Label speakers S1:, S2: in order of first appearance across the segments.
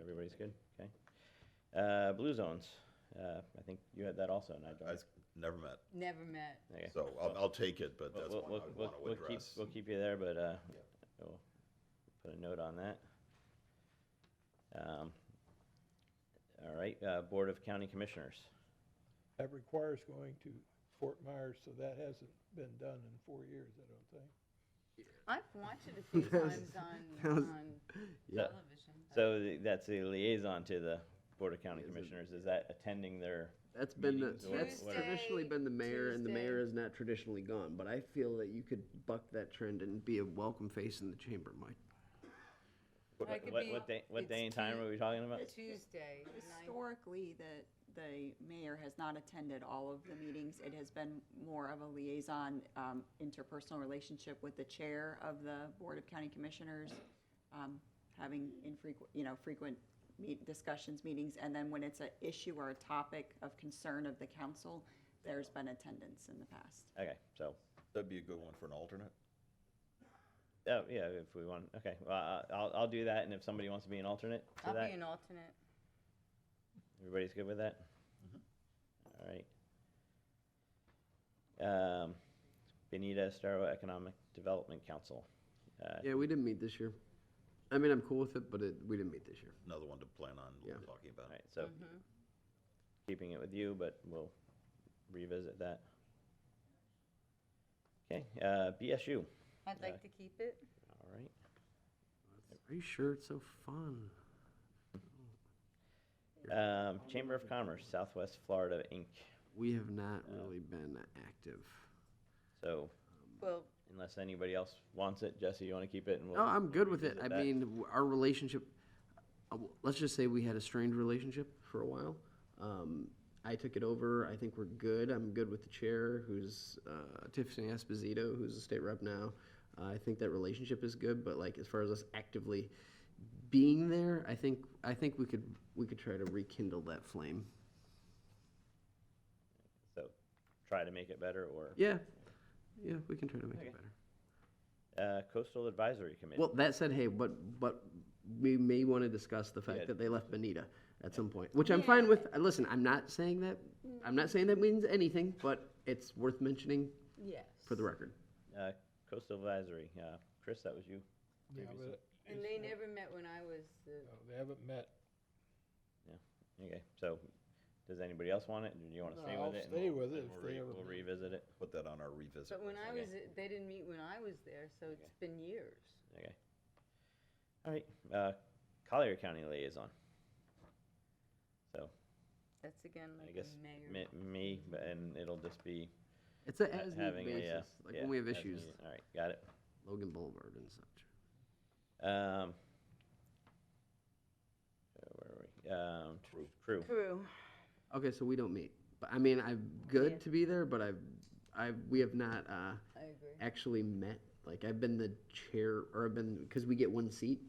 S1: Everybody's good? Okay. Uh, Blue Zones, uh, I think you had that also, Nigel.
S2: I s- never met,
S3: Never met.
S1: Okay.
S2: so I'll, I'll take it, but
S1: We'll-
S2: that's
S1: we'll-
S2: one I
S1: we'll-
S2: want to
S1: we'll keep-
S2: address.
S1: We'll keep you there, but, uh,
S2: Yeah.
S1: we'll put a note on that. Um, All right, uh, Board of County Commissioners.
S4: That requires going to Fort Myers, so that hasn't been done in four years, I don't think.
S3: I've watched it a few
S5: That was-
S3: times on,
S5: that was-
S3: on
S5: Yeah.
S3: television.
S1: So the- that's the liaison to the Board of County
S5: Is it-
S1: Commissioners, is that attending their,
S5: That's been the,
S1: meetings or
S5: that's
S1: whatever.
S5: traditionally been the mayor, and the
S3: Tuesday-
S5: mayor is not traditionally gone. But I feel that you could buck that trend and be a welcome face in the chamber, Mike.
S3: Or it
S1: what,
S3: could
S1: what-
S3: be-
S1: what day, what
S6: it's
S1: day and time
S6: T-
S1: are we talking about?
S3: Tuesday, the ninth.
S6: Historically, the, the mayor has not attended all of the meetings. It has been more of a liaison, um, interpersonal relationship with the chair of the Board of County Commissioners, um, having infrequent, you know, frequent meet, discussions, meetings, and then when it's an issue or a topic of concern of the council, there's been attendance in the past.
S1: Okay, so,
S2: That'd be a good one for an alternate.
S1: oh, yeah, if we want, okay, well, I- I'll, I'll do that, and if somebody wants to be an alternate to
S3: I'll
S1: that,
S3: be an alternate.
S1: everybody's good with that? All right. Um, Benita Estero Economic Development Council. Uh,
S5: Yeah, we didn't meet this year. I mean, I'm cool with it, but it, we didn't meet this year.
S2: Another one to plan on
S5: Yeah.
S2: talking about.
S1: All right, so
S3: Mm-hmm.
S1: keeping it with you, but we'll revisit that. Okay, uh, BSU,
S3: I'd
S1: Yeah.
S3: like to keep it.
S1: all right.
S5: Are you sure it's so fun?
S1: Um, Chamber of Commerce, Southwest Florida, Inc.
S5: We have not really been active.
S1: So
S3: Well,
S1: unless anybody else wants it, Jesse, you want to keep it? and we'll-
S5: No, Oh, I'm good with it. I
S1: revisit that.
S5: mean, w- our relationship, uh, w- let's just say we had a strained relationship for a while. Um, I took it over. I think we're good. I'm good with the chair, who's uh, Tiffany Esposito, who's a state rep now. Uh, I think that relationship is good, but like as far as us actively being there, I think I think we could we could try to rekindle that flame.
S1: So try to make it better or,
S5: Yeah, yeah, we can try to make
S1: Okay.
S5: it better.
S1: uh, Coastal Advisory Committee.
S5: Well, that said, hey, but but we may want to discuss the fact
S1: Yeah.
S5: that they left Benita at some point, which I'm fine with. Uh, Listen, I'm not saying that. I'm not saying that means anything, but it's worth mentioning
S3: yes.
S5: for the record.
S1: Uh, Coastal Advisory, uh, Chris, that was you.
S4: Yeah,
S1: Maybe
S4: but uh,
S3: And they never met when I was the,
S1: Oh,
S4: no, They haven't met.
S1: Okay, so does anybody else want it? Do you want to stay
S4: No, I'll
S1: with it? and
S4: stay
S1: we'll-
S4: with it
S1: and
S4: if
S1: we'll
S4: they
S1: re-
S4: ever
S1: We'll
S4: meet.
S1: revisit it,
S2: Put that on our revisit.
S3: but when I
S1: Okay.
S3: was, they didn't meet when I was there, so it's been years.
S1: okay. All right, uh, Collier County Liaison. So
S3: That's again
S1: I
S3: like
S1: guess
S3: a mayor.
S1: me, me, but- and it'll just be
S5: It's a
S1: ha-
S5: as needed
S1: having a, uh,
S5: basis, like
S1: yeah,
S5: when we have
S1: as
S5: issues,
S1: needed. All right, got it.
S5: Logan Boulevard and such.
S1: Um, so where are we? Um, tr- crew.
S3: Crew.
S5: Okay, so we don't meet, but I mean, I'm good
S3: Yeah.
S5: to be there, but I've I we have not uh,
S3: I agree.
S5: actually met. Like I've been the chair, or I've been because we get one seat.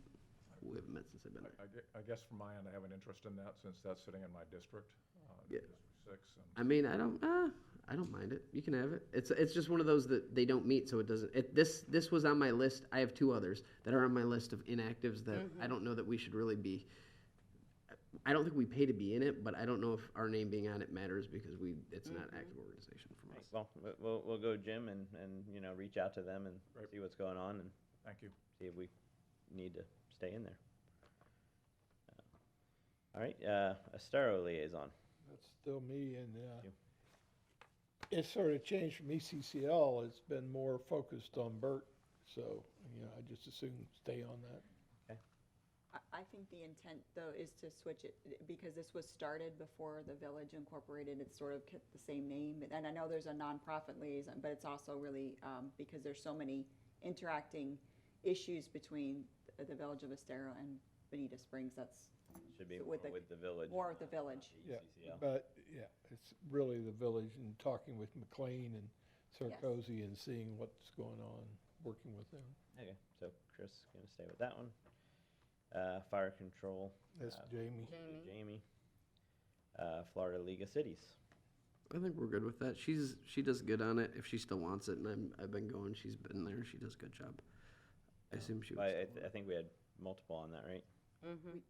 S5: We haven't met since I've been there.
S7: I gue- I guess from my end, I have an interest in that since that's sitting in my district, uh,
S5: Yeah.
S7: District Six. and-
S5: I mean, I don't, uh, I don't mind it. You can have it. It's it's just one of those that they don't meet, so it doesn't. It, this this was on my list. I have two others that are on my list of inactives that I don't know that we should really be. I don't think we pay to be in it, but I don't know if our name being on it matters because we it's not active organization from us.
S1: Well, we- we'll, we'll go Jim and, and, you know, reach out to them and
S7: Right.
S1: see what's going on and
S7: Thank you.
S1: see if we need to stay in there. All right, uh, Estero liaison.
S4: That's still me and, uh,
S1: You.
S4: it's sort of changed from E ECCL. It's been more focused on Bert, so, you know, I just assume stay on that.
S6: I- I think the intent, though, is to switch it, because this was started before the village incorporated, it's sort of kept the same name. And I know there's a nonprofit liaison, but it's also really, um, because there's so many interacting issues between the village of Estero and Bonita Springs, that's
S1: Should be
S6: So
S1: more
S6: with the-
S1: with the village.
S6: more of the village.
S1: the
S4: Yeah,
S1: ECCL.
S4: But, yeah, it's really the village and talking with McLean and Sarkozy and seeing what's going on, working with them.
S1: Okay, so Chris is gonna stay with that one. Uh, fire control,
S4: That's
S1: Uh,
S4: Jamie.
S3: Jamie.
S1: Jamie. Uh, Florida League of Cities.
S5: I think we're good with that. She's she does good on it if she still wants it, and I'm I've been going. She's been there. She does a good job. I assume
S1: I,
S5: she. Would
S1: Uh, I,
S5: still
S1: th- I think we had multiple on that, right?
S3: Mhm.